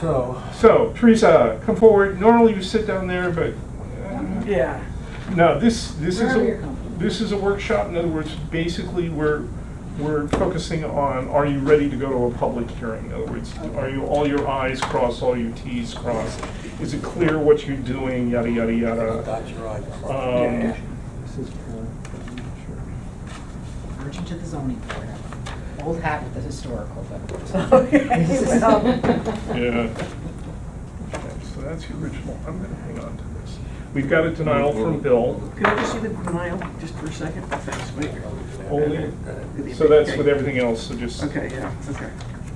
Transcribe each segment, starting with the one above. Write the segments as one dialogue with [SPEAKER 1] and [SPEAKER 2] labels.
[SPEAKER 1] So,
[SPEAKER 2] So, Teresa, come forward. Normally you sit down there, but uh,
[SPEAKER 3] Yeah.
[SPEAKER 2] no, this, this is,
[SPEAKER 3] Wherever you're
[SPEAKER 2] a-
[SPEAKER 3] comfortable.
[SPEAKER 2] this is a workshop. In other words, basically, we're, we're focusing on, are you ready to go to a public hearing? In other words, are you, all your i's crossed, all your t's crossed? Is it clear what you're doing, yada, yada,
[SPEAKER 1] I'll
[SPEAKER 2] yada?
[SPEAKER 1] dot your i.
[SPEAKER 2] Um,
[SPEAKER 1] This is for-
[SPEAKER 4] Merge into the zoning board. Old hat with the historical, but.
[SPEAKER 3] Okay, well,
[SPEAKER 2] Yeah. Okay, So that's the original. I'm gonna hang on to this. We've got a denial from Bill.
[SPEAKER 3] Could I just see the denial, just for a second? Oh, Thanks, wait.
[SPEAKER 2] Only-
[SPEAKER 1] That-
[SPEAKER 2] So that's with everything else, so just.
[SPEAKER 3] Okay, yeah, okay.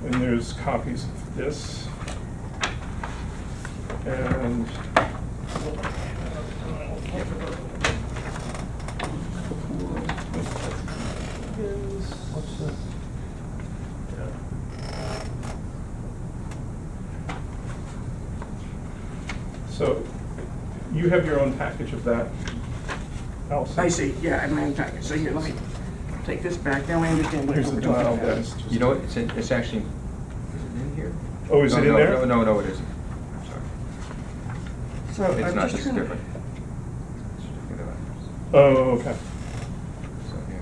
[SPEAKER 2] And there's copies of this. And.
[SPEAKER 1] What's the,
[SPEAKER 2] So you have your own package of that, Allison?
[SPEAKER 3] I see, yeah, I'm in packet, so here, let me take this back, now I understand what
[SPEAKER 2] Here's the
[SPEAKER 3] we're talking
[SPEAKER 2] denial,
[SPEAKER 3] about.
[SPEAKER 2] that is just.
[SPEAKER 5] You know, what, it's, in- it's actually, is it in here?
[SPEAKER 2] Oh, is
[SPEAKER 5] No,
[SPEAKER 2] it in
[SPEAKER 5] no,
[SPEAKER 2] there?
[SPEAKER 5] No, no, no, it isn't. I'm sorry.
[SPEAKER 3] So I'm
[SPEAKER 5] It's not,
[SPEAKER 3] just
[SPEAKER 5] this is
[SPEAKER 3] trying to-
[SPEAKER 5] different. Certificate of occupancy.
[SPEAKER 2] Oh, okay.
[SPEAKER 5] So, yeah.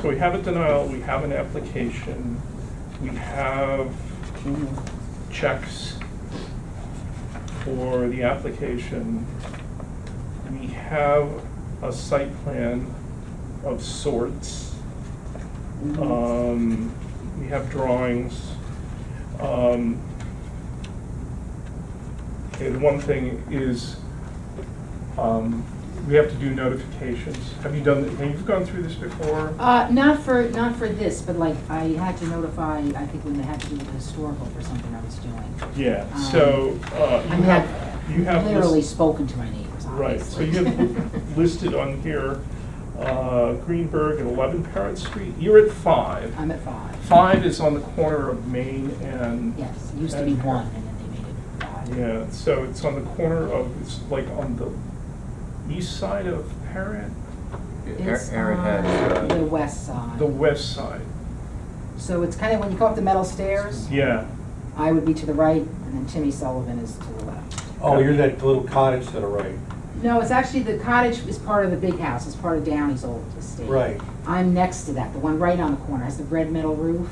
[SPEAKER 2] So we have a denial, we have an application, we have checks for the application. We have a site plan of sorts.
[SPEAKER 4] Mm-hmm.
[SPEAKER 2] Um, we have drawings. Um, and one thing is, um, we have to do notifications. Have you done, have you gone through this before?
[SPEAKER 4] Uh, not for, not for this, but like, I had to notify, I think when they had to do with historical for something I was doing.
[SPEAKER 2] Yeah,
[SPEAKER 4] Um,
[SPEAKER 2] so, uh,
[SPEAKER 4] I
[SPEAKER 2] you
[SPEAKER 4] mean,
[SPEAKER 2] have, you
[SPEAKER 4] I've
[SPEAKER 2] have.
[SPEAKER 4] literally
[SPEAKER 2] list-
[SPEAKER 4] spoken to my neighbors,
[SPEAKER 2] Right, so
[SPEAKER 4] obviously.
[SPEAKER 2] you have listed on here, uh, Greenberg at eleven Parrot Street, you're at five.
[SPEAKER 4] I'm at five.
[SPEAKER 2] Five is on the corner of Main and.
[SPEAKER 4] Yes, it used to be
[SPEAKER 2] and-
[SPEAKER 4] one, and then they made it five.
[SPEAKER 2] Yeah, so it's on the corner of, it's like on the east side of Parrot,
[SPEAKER 4] It's
[SPEAKER 5] Aaron- Aaron
[SPEAKER 4] on
[SPEAKER 5] had,
[SPEAKER 4] The
[SPEAKER 5] uh,
[SPEAKER 4] west side.
[SPEAKER 2] the west side,
[SPEAKER 4] So it's kind of, when you go up the metal stairs,
[SPEAKER 2] yeah.
[SPEAKER 4] I would be to the right, and then Timmy Sullivan is to the left.
[SPEAKER 1] Oh, you're that little cottage to the right.
[SPEAKER 4] No, it's actually, the cottage is part of the big house, it's part of Downey's old estate.
[SPEAKER 1] Right.
[SPEAKER 4] I'm next to that, the one right on the corner, has the red metal roof.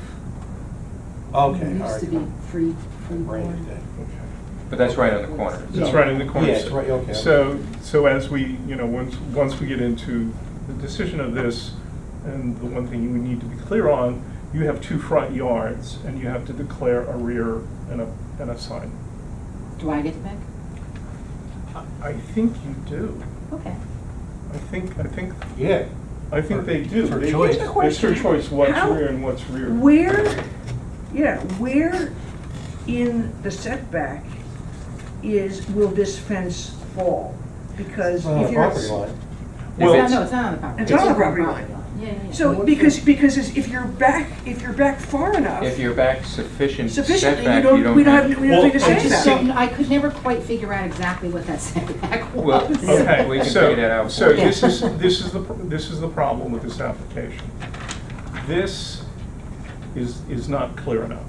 [SPEAKER 1] Okay, all right.
[SPEAKER 4] It used to be free, free
[SPEAKER 1] Branded
[SPEAKER 4] board.
[SPEAKER 1] then.
[SPEAKER 2] Okay.
[SPEAKER 5] But that's right on the corner.
[SPEAKER 2] It's right in the corner.
[SPEAKER 1] Yeah, it's right, okay.
[SPEAKER 2] So, so as we, you know, once, once we get into the decision of this, and the one thing you would need to be clear on, you have two front yards, and you have to declare a rear and a, and a side.
[SPEAKER 4] Do I get to pick?
[SPEAKER 2] I think you do.
[SPEAKER 4] Okay.
[SPEAKER 2] I think, I think,
[SPEAKER 1] Yeah.
[SPEAKER 2] I think they do.
[SPEAKER 1] It's her
[SPEAKER 2] They-
[SPEAKER 1] choice.
[SPEAKER 2] It's her choice what's
[SPEAKER 3] How-
[SPEAKER 2] rear and what's rear.
[SPEAKER 3] Where, yeah, where in the setback is, will this fence fall? Because
[SPEAKER 1] Well,
[SPEAKER 3] if you're.
[SPEAKER 1] property line.
[SPEAKER 2] Well,
[SPEAKER 4] It's not, no, it's not on the property.
[SPEAKER 3] It's on the property line.
[SPEAKER 4] Yeah, yeah, yeah.
[SPEAKER 3] So, because, because it's- if you're back, if you're back far enough.
[SPEAKER 5] If you're back sufficient
[SPEAKER 3] Sufficiently, you
[SPEAKER 5] setback, you
[SPEAKER 3] don't, we
[SPEAKER 5] don't
[SPEAKER 3] don't have,
[SPEAKER 5] have.
[SPEAKER 3] we don't have anything to
[SPEAKER 2] Well, I
[SPEAKER 3] say about
[SPEAKER 4] I
[SPEAKER 3] it.
[SPEAKER 4] just
[SPEAKER 2] that.
[SPEAKER 4] don't, I could never quite figure out exactly what that setback
[SPEAKER 5] Well,
[SPEAKER 4] was.
[SPEAKER 2] Okay,
[SPEAKER 5] We can
[SPEAKER 2] so-
[SPEAKER 5] figure that out
[SPEAKER 2] So
[SPEAKER 5] for you.
[SPEAKER 2] this is, this is the, pr- this is the problem with this application. This is, is not clear enough,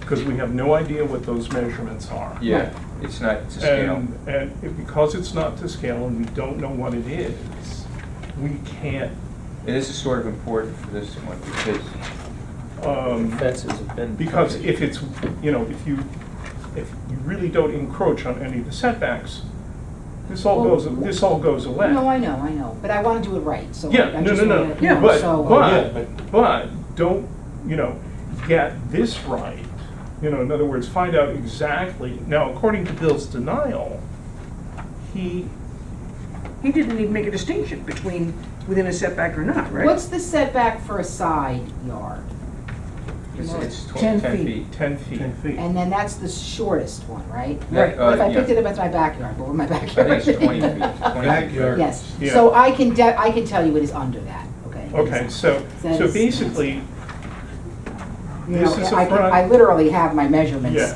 [SPEAKER 2] because we have no idea what those measurements are.
[SPEAKER 5] Yeah, it's not to scale.
[SPEAKER 2] And, and it- because it's not to scale and we don't know what it is, we can't,
[SPEAKER 5] And this is sort of important for this one because
[SPEAKER 2] um,
[SPEAKER 6] Fences have been.
[SPEAKER 2] because if it's, you know, if you, if you really don't encroach on any of the setbacks, this all goes, this all goes away.
[SPEAKER 4] No, I know, I know, but I want to do it right, so.
[SPEAKER 2] Yeah,
[SPEAKER 4] I
[SPEAKER 2] no,
[SPEAKER 4] just
[SPEAKER 2] no, no,
[SPEAKER 4] wanna, you
[SPEAKER 2] yeah,
[SPEAKER 4] know,
[SPEAKER 2] but,
[SPEAKER 4] so-
[SPEAKER 1] Yeah,
[SPEAKER 2] but,
[SPEAKER 1] but-
[SPEAKER 2] but, don't, you know, get this right. You know, in other words, find out exactly, now, according to Bill's denial, he,
[SPEAKER 3] He didn't even make a distinction between within a setback or not, right?
[SPEAKER 4] What's the setback for a side yard?
[SPEAKER 5] it's, it's tw-
[SPEAKER 3] 10
[SPEAKER 5] ten
[SPEAKER 3] feet.
[SPEAKER 5] feet.
[SPEAKER 2] ten feet.
[SPEAKER 4] And then that's the shortest one, right?
[SPEAKER 5] Right.
[SPEAKER 4] What If
[SPEAKER 5] Uh,
[SPEAKER 4] I picked
[SPEAKER 5] yeah.
[SPEAKER 4] it up, it's my backyard, but with my
[SPEAKER 5] I
[SPEAKER 4] backyard.
[SPEAKER 5] think it's twenty feet, twenty feet.
[SPEAKER 1] Backyard.
[SPEAKER 4] Yes,
[SPEAKER 2] Yeah.
[SPEAKER 4] so I can, de- I can tell you it is under that, okay?
[SPEAKER 2] Okay, so,
[SPEAKER 4] That
[SPEAKER 2] so
[SPEAKER 4] is-
[SPEAKER 2] basically,
[SPEAKER 4] You
[SPEAKER 2] this
[SPEAKER 4] know,
[SPEAKER 2] is
[SPEAKER 4] I
[SPEAKER 2] a
[SPEAKER 4] can-
[SPEAKER 2] front.
[SPEAKER 4] I literally have my measurements
[SPEAKER 2] Yeah.